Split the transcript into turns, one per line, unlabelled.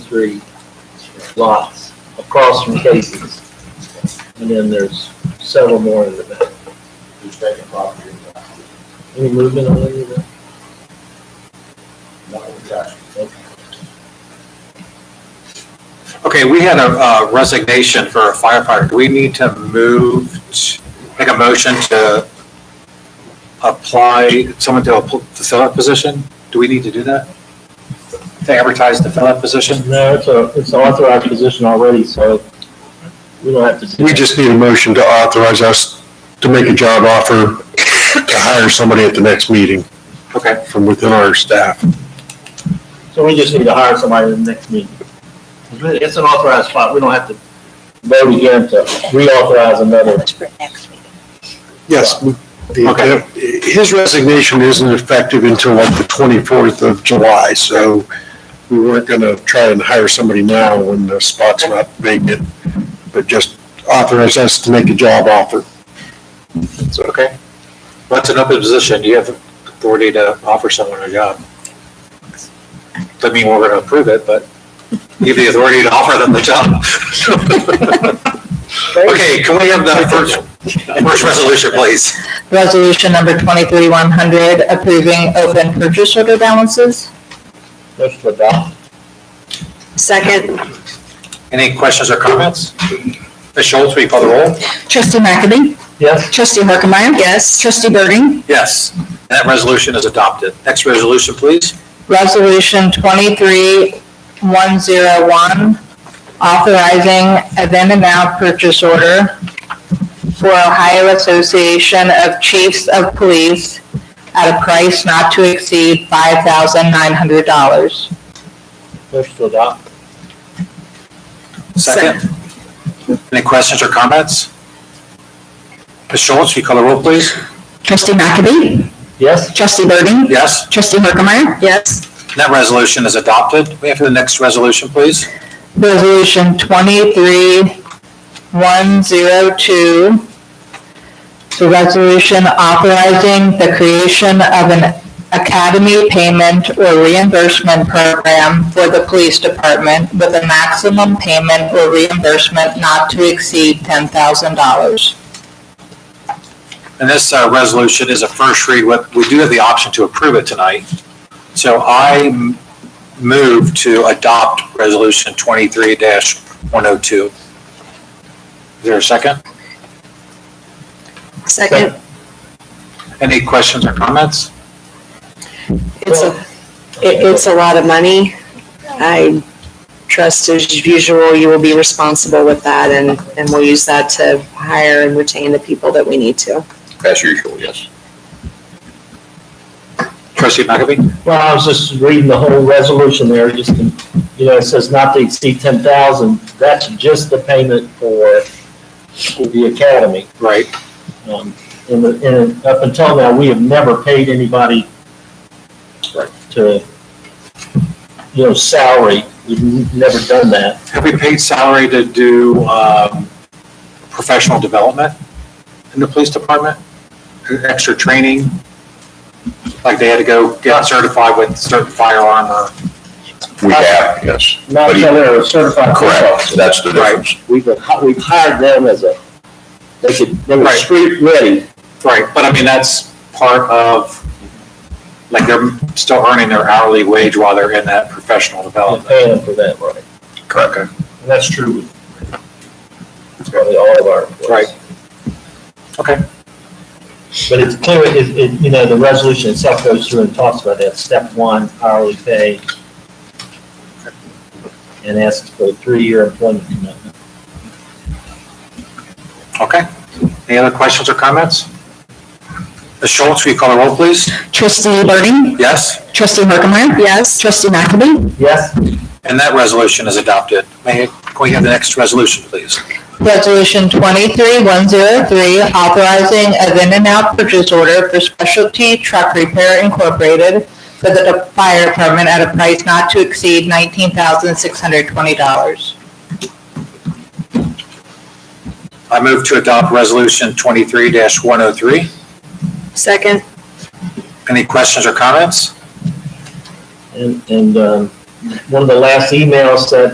three lots across from Casey's. And then there's several more in the back.
Who's taking property in the house?
Any movement on any of that?
Not with the action.
Okay, we had a uh, resignation for a firefighter. Do we need to move, t- make a motion to apply someone to, appl- to fill that position? Do we need to do that? To advertise to fill that position?
No, it's a, it's an authorized position already, so we don't have to. do
We
that.
just need a motion to authorize us to make a job offer to hire somebody at the next meeting
Okay,
from within our staff.
So we just need to hire somebody in the next meeting. It's an authorized spot, we don't have to vote again to reauthorize another.
That's for next meeting.
Yes.
Uh,
the- His resignation isn't effective until like the 24th of July, so we weren't going to try and hire somebody now when the spot's not vacant, but just authorize us to make a job offer.
it's okay. What's an open position? Do you have authority to offer someone a job? Doesn't mean we're gonna approve it, but you have the authority to offer them the job. Okay, can we have the first, first resolution, please?
Resolution number 23100, approving open purchase order balances.
Motion to adopt.
Second.
Any questions or comments? Ms. Schultz, will you call the roll?
Trustee McAdie.
Yes?
Trustee Harkemaia. Yes. Trustee Birding.
Yes. That resolution is adopted. Next resolution, please.
Resolution 23101, authorizing a then and now purchase order for Ohio Association of Chiefs of Police at a price not to exceed $5,900.
Motion to adopt.
Second. Any questions or comments? Ms. Schultz, will you call the roll, please?
Trustee McAdie.
Yes?
Trustee Birding.
Yes.
Trustee Harkemaia. Yes.
That resolution is adopted. We have the next resolution, please.
Resolution 23102, it's a resolution authorizing the creation of an academy payment or reimbursement program for the police department with a maximum payment or reimbursement not to exceed $10,000.
And this uh, resolution is a first read. What- We do have the option to approve it tonight. So I m- move to adopt Resolution 23-102. Is oh there a second?
Second.
Any questions or comments?
It's a, it, it's a lot of money. I trust as usual, you will be responsible with that and, and we'll use that to hire and retain the people that we need to.
As usual, yes.
Trustee McAfee?
Well, I was just reading the whole resolution there, just, to- you know, it says not to exceed ten thousand. That's just the payment for the academy.
Right.
Um, and, the- and up until now, we have never paid anybody to, you know, salary. We've n- never done that.
Have we paid salary to do um, professional development in the police department? Extra training? Like they had to go get certified with certain firearm or?
We have, yes.
Not
But he-
until they're a certified police officer.
That's the difference.
We've, hi- we've hired them as a, they could, they were
Right.
street ready.
Right, but I mean, that's part of, like they're still earning their hourly wage while they're in that professional
We're
development.
paying them for that, right?
Correct.
And that's true with probably all of our employees.
Right. Okay.
But it's clear, it, it, you know, the resolution itself goes through and talks about that, step one, hourly pay. And asks for a three-year employment commitment.
Okay. Any other questions or comments? Ms. Schultz, will you call the roll, please?
Trustee Birding?
Yes?
Trustee Harkemaia?
Yes,
Trustee McAdie?
Yes,
And that resolution is adopted. May, can we have the next resolution, please?
Resolution 23103, authorizing a then and now purchase order for Specialty Truck Repair Incorporated for the de- fire department at a price not to exceed $19,620.
I move to adopt Resolution 23-103.
second,
Any questions or comments?
and, and, um, one of the last emails that